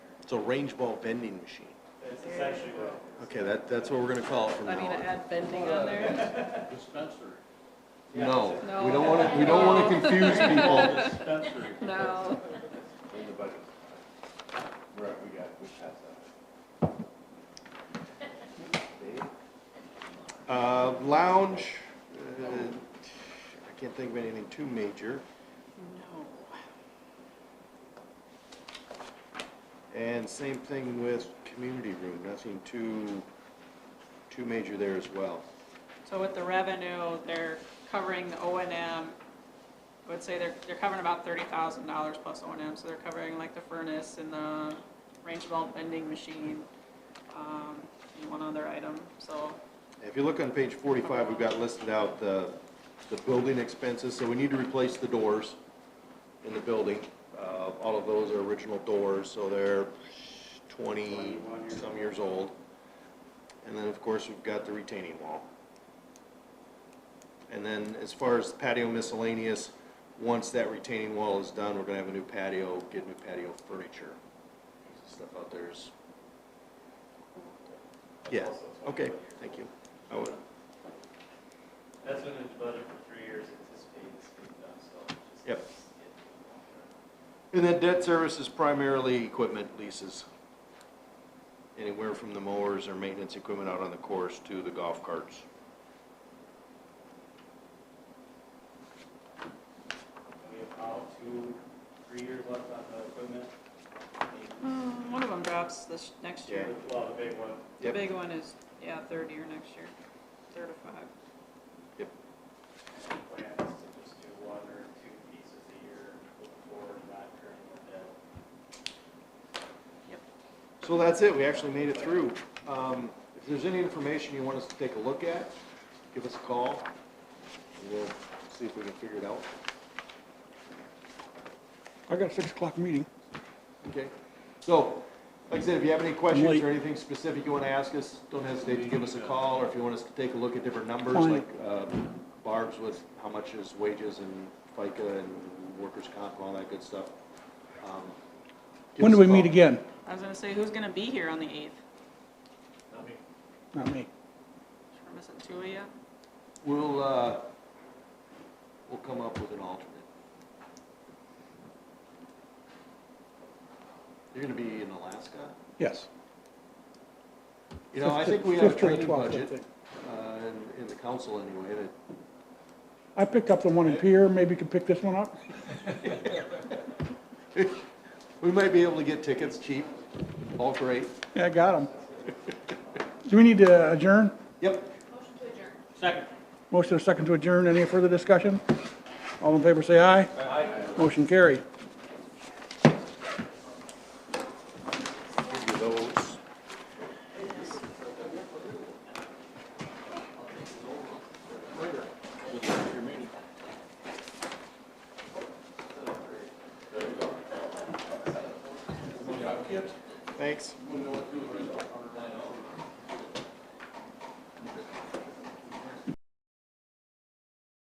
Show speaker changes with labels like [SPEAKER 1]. [SPEAKER 1] It's a range ball vending machine.
[SPEAKER 2] That's essentially what.
[SPEAKER 1] Okay, that, that's what we're gonna call it from
[SPEAKER 3] I
[SPEAKER 1] now
[SPEAKER 3] mean, to
[SPEAKER 1] on.
[SPEAKER 3] add bending on there.
[SPEAKER 4] Dispensary.
[SPEAKER 1] No,
[SPEAKER 3] No.
[SPEAKER 1] we don't wanna, we don't wanna confuse people.
[SPEAKER 4] Dispensary.
[SPEAKER 3] No,
[SPEAKER 2] In the budget. Right, we got, we passed that. Dave?
[SPEAKER 1] Uh, lounge, uh, I can't think of anything too major. And same thing with community room, nothing too, too major there as well.
[SPEAKER 3] so with the revenue, they're covering the O and M. I would say they're, they're covering about thirty thousand dollars plus O and M, so they're covering like the furnace and the range belt vending machine, um, and one other item, so.
[SPEAKER 1] If you look on page forty-five, we've got listed out the, the building expenses, so we need to replace the doors in the building. Uh, all of those are original doors, so they're twenty-some years old. And then, of course, we've got the retaining wall. And then as far as patio miscellaneous, once that retaining wall is done, we're gonna have a new patio, get new patio furniture. Stuff out there is. Yeah, okay, thank you. I would,
[SPEAKER 2] That's been in the budget for three years, anticipating this being done, so. just-
[SPEAKER 1] Yep. And then debt service is primarily equipment leases. Anywhere from the mowers or maintenance equipment out on the course to the golf carts.
[SPEAKER 2] We have about two, three years left on the equipment.
[SPEAKER 3] Hmm, One of them drops this next year.
[SPEAKER 2] Well, the big one.
[SPEAKER 3] The
[SPEAKER 1] Yep.
[SPEAKER 3] big one is, yeah, third year next year, third or five.
[SPEAKER 2] The plan is to just do one or two pieces a year going forward, not turning the debt.
[SPEAKER 1] So that's it, we actually made it through. Um, if there's any information you want us to take a look at, give us a call. and We'll see if we can figure it out.
[SPEAKER 5] I got a six o'clock meeting.
[SPEAKER 1] Okay? So, like I said, if you have any questions
[SPEAKER 5] Wait.
[SPEAKER 1] or anything specific you wanna ask us, don't hesitate to give us a call, or if you want us to take a look at different numbers,
[SPEAKER 5] Fine.
[SPEAKER 1] like, uh, Barb's with how much is wages and FICA and workers' comp, and all that good stuff. um, give
[SPEAKER 5] When
[SPEAKER 1] us
[SPEAKER 5] do
[SPEAKER 1] a
[SPEAKER 5] we meet
[SPEAKER 1] call.
[SPEAKER 5] again?
[SPEAKER 3] I was gonna say, who's gonna be here on the eighth?
[SPEAKER 5] Not me.
[SPEAKER 3] We're missing two of you.
[SPEAKER 1] We'll, uh, we'll come up with an alternate. You're gonna be in Alaska?
[SPEAKER 5] Yes.
[SPEAKER 1] You know, I
[SPEAKER 5] Fifth-
[SPEAKER 1] think we have a
[SPEAKER 5] fifth or the
[SPEAKER 1] training
[SPEAKER 5] 12th, I
[SPEAKER 1] budget,
[SPEAKER 5] think.
[SPEAKER 1] uh, in, in the council anyway, that
[SPEAKER 5] I picked up the one in Pier, maybe you could pick this one up?
[SPEAKER 1] We might be able to get tickets cheap, all great.
[SPEAKER 5] Yeah, I got them. Do we need to adjourn?
[SPEAKER 1] Yep.
[SPEAKER 4] Second.
[SPEAKER 5] Motion is second to adjourn. Any further discussion? All in favor, say aye. Aye. Motion carried.
[SPEAKER 1] Give you those. Thanks.